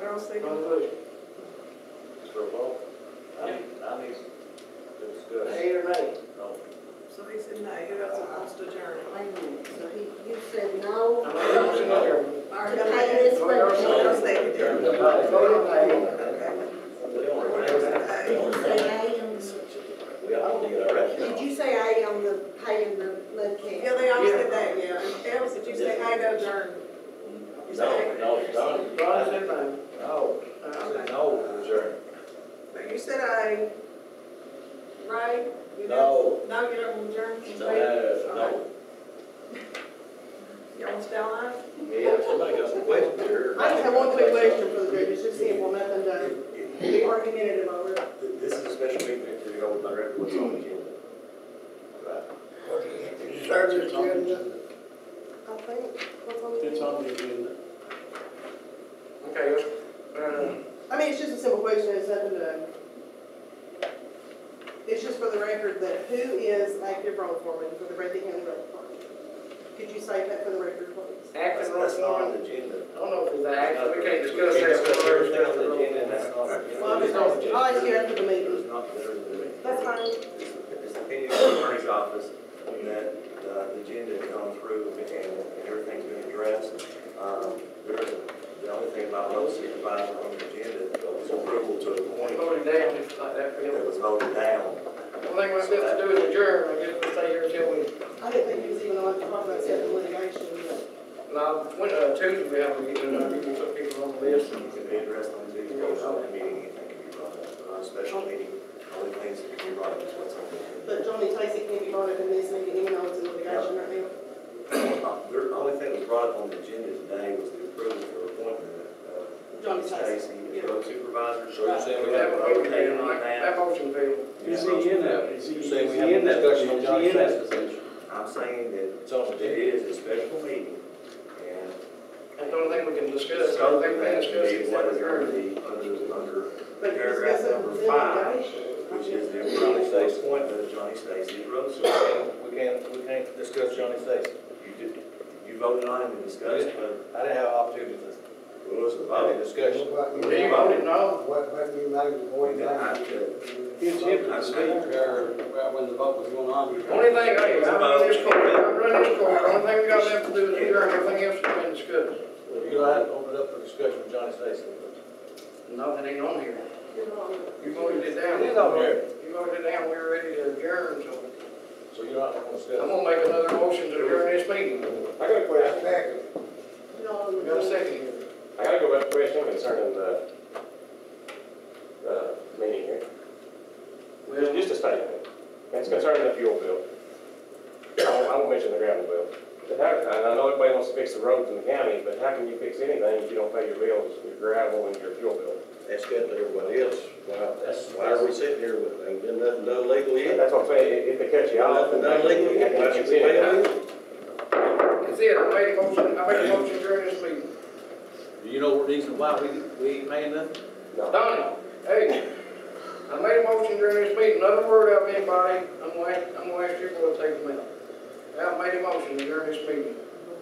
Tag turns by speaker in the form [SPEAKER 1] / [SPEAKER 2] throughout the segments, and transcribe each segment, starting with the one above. [SPEAKER 1] Carl second.
[SPEAKER 2] Conclusion.
[SPEAKER 3] Mr. Paul?
[SPEAKER 2] I mean,
[SPEAKER 3] I need to discuss.
[SPEAKER 2] eight or nine.
[SPEAKER 3] No.
[SPEAKER 1] So he said, no, you guys are supposed to adjourn.
[SPEAKER 4] Wait a minute, so he, you said no,
[SPEAKER 2] Motion adjourned.
[SPEAKER 4] or he paid this
[SPEAKER 2] Go your
[SPEAKER 1] Carl
[SPEAKER 4] one?
[SPEAKER 1] second.
[SPEAKER 2] Vote in favor.
[SPEAKER 4] You said aye on the-
[SPEAKER 3] We all need our
[SPEAKER 4] Did you say aye on the paying the lead cap?
[SPEAKER 1] Yeah, they all said that, yeah. And Al said, you say, I go adjourn. You
[SPEAKER 3] No,
[SPEAKER 1] said,
[SPEAKER 3] no, Donnie.
[SPEAKER 2] Ron said nine.
[SPEAKER 3] No, I said no, adjourn.
[SPEAKER 1] no, you said I, right? You
[SPEAKER 3] No.
[SPEAKER 1] don't- No, you don't want to adjourn? You
[SPEAKER 3] No,
[SPEAKER 1] say-
[SPEAKER 3] no.
[SPEAKER 1] You want to stay on?
[SPEAKER 3] Yeah, somebody got some questions here.
[SPEAKER 5] I just have one quick question for the group, it's just simple, nothing done, be argumentative over it.
[SPEAKER 3] This is a special meeting, if you go with my record, what's on the agenda? Right.
[SPEAKER 2] Service agenda.
[SPEAKER 4] I think, what's on the?
[SPEAKER 6] It's on the agenda.
[SPEAKER 2] Okay, uh,
[SPEAKER 5] I mean, it's just a simple question, it's nothing done. It's just for the record that who is active road foreman for the Breathitt County Road Department? Could you say that for the record, please?
[SPEAKER 2] acting
[SPEAKER 3] That's-
[SPEAKER 2] roll
[SPEAKER 3] That's not on
[SPEAKER 2] call.
[SPEAKER 3] the agenda.
[SPEAKER 2] I don't know if it's an act, we can't discuss
[SPEAKER 3] We
[SPEAKER 2] that.
[SPEAKER 3] can't discuss everything on the agenda, and that's not.
[SPEAKER 5] Well, I'm just, I'll ask you after
[SPEAKER 3] It
[SPEAKER 5] the
[SPEAKER 3] was
[SPEAKER 5] meeting.
[SPEAKER 3] not considered the meeting.
[SPEAKER 5] That's fine.
[SPEAKER 3] It's the opinion of the attorney's office that uh, the agenda has gone through and and everything's been addressed. Um, there is a- The only thing about low supervisor on the agenda is approval to
[SPEAKER 2] We're
[SPEAKER 3] appoint
[SPEAKER 2] voting down, just like that, Phil.
[SPEAKER 3] that was voted down.
[SPEAKER 2] Only thing we have to do is adjourn, I guess we'll stay here till we,
[SPEAKER 5] I didn't think he was even allowed to talk about setting litigation, but
[SPEAKER 2] now, when, uh, Tuesday we have a meeting, and I think we put people on the list.
[SPEAKER 3] It can be addressed on Tuesday, or on a meeting, it can be brought up. On a special meeting, only things that can be brought up is what's on the agenda.
[SPEAKER 5] but Johnny Tacey can't be brought up in this meeting, even though it's in litigation right now.
[SPEAKER 3] The only thing that was brought up on the agenda today was the approval for appointment of. uh,
[SPEAKER 5] Johnny Stacy.
[SPEAKER 3] Stacy, as road supervisor.
[SPEAKER 7] So you're saying
[SPEAKER 2] We
[SPEAKER 7] we
[SPEAKER 2] have a
[SPEAKER 7] have,
[SPEAKER 2] motion, Phil, that motion, Phil.
[SPEAKER 7] is he in that, is he, you're is he saying we have a in that, is discussion on John he in that Stacy's position?
[SPEAKER 3] I'm saying that
[SPEAKER 7] It's on the
[SPEAKER 3] it
[SPEAKER 7] agenda.
[SPEAKER 3] is a special meeting, and.
[SPEAKER 2] That's the only thing we can discuss, the
[SPEAKER 3] So
[SPEAKER 2] only
[SPEAKER 3] that
[SPEAKER 2] thing we can discuss
[SPEAKER 3] would
[SPEAKER 2] is
[SPEAKER 3] be what
[SPEAKER 2] that
[SPEAKER 3] is under
[SPEAKER 2] adjourn.
[SPEAKER 3] the, under, under
[SPEAKER 5] But you're
[SPEAKER 3] paragraph
[SPEAKER 5] discussing
[SPEAKER 3] number
[SPEAKER 5] the
[SPEAKER 3] five,
[SPEAKER 5] litigation.
[SPEAKER 3] which is the approval appointment of Johnny Stacy as road supervisor.
[SPEAKER 7] We can't, we can't discuss Johnny Stacy.
[SPEAKER 3] You did, you voted on him and discussed, it, but
[SPEAKER 7] I didn't have an opportunity to
[SPEAKER 3] it was a
[SPEAKER 7] have a
[SPEAKER 3] vote.
[SPEAKER 7] discussion.
[SPEAKER 2] You voted no?
[SPEAKER 7] It's him to speak, or, well, when the vote was going on.
[SPEAKER 2] Only thing, hey, I'm running this court, I'm running this court, the only thing we got left to do is adjourn, everything else has been discussed.
[SPEAKER 7] You're gonna have to open it up for discussion with Johnny Stacy.
[SPEAKER 2] Nothing ain't on here.
[SPEAKER 5] You're wrong.
[SPEAKER 2] You voted it down.
[SPEAKER 7] It is on here.
[SPEAKER 2] You voted it down, we were ready to adjourn, so
[SPEAKER 7] So you're not gonna
[SPEAKER 2] I'm
[SPEAKER 7] discuss.
[SPEAKER 2] gonna make another motion to adjourn this meeting.
[SPEAKER 8] I got a question.
[SPEAKER 5] You're wrong.
[SPEAKER 2] We got a second here.
[SPEAKER 8] I gotta go back to question concerning the, the meeting here. There's just a statement, and it's concerning the fuel bill. I won't, I won't mention the gravel bill. But how, and I know everybody wants to fix the roads in the county, but how can you fix anything if you don't pay your bills, your gravel and your fuel bill?
[SPEAKER 7] That's good to everybody else. Why, that's, why are we sitting here with, ain't been nothing done legally
[SPEAKER 8] That's what I'm saying, if if they cut you off.
[SPEAKER 7] Nothing done legally,
[SPEAKER 8] Yeah,
[SPEAKER 7] why should we
[SPEAKER 8] it's in
[SPEAKER 7] pay
[SPEAKER 8] it.
[SPEAKER 7] them?
[SPEAKER 2] That's it, I made a motion, I made a motion during this meeting.
[SPEAKER 7] Do you know what reason why we, we ain't paying nothing?
[SPEAKER 8] No,
[SPEAKER 2] Donnie, hey, I made a motion during this meeting, another word out of anybody, I'm gonna, ask- I'm gonna ask you to go take them out. I made a motion during this meeting,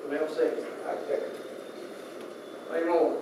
[SPEAKER 2] and I'll second. I second. Any more?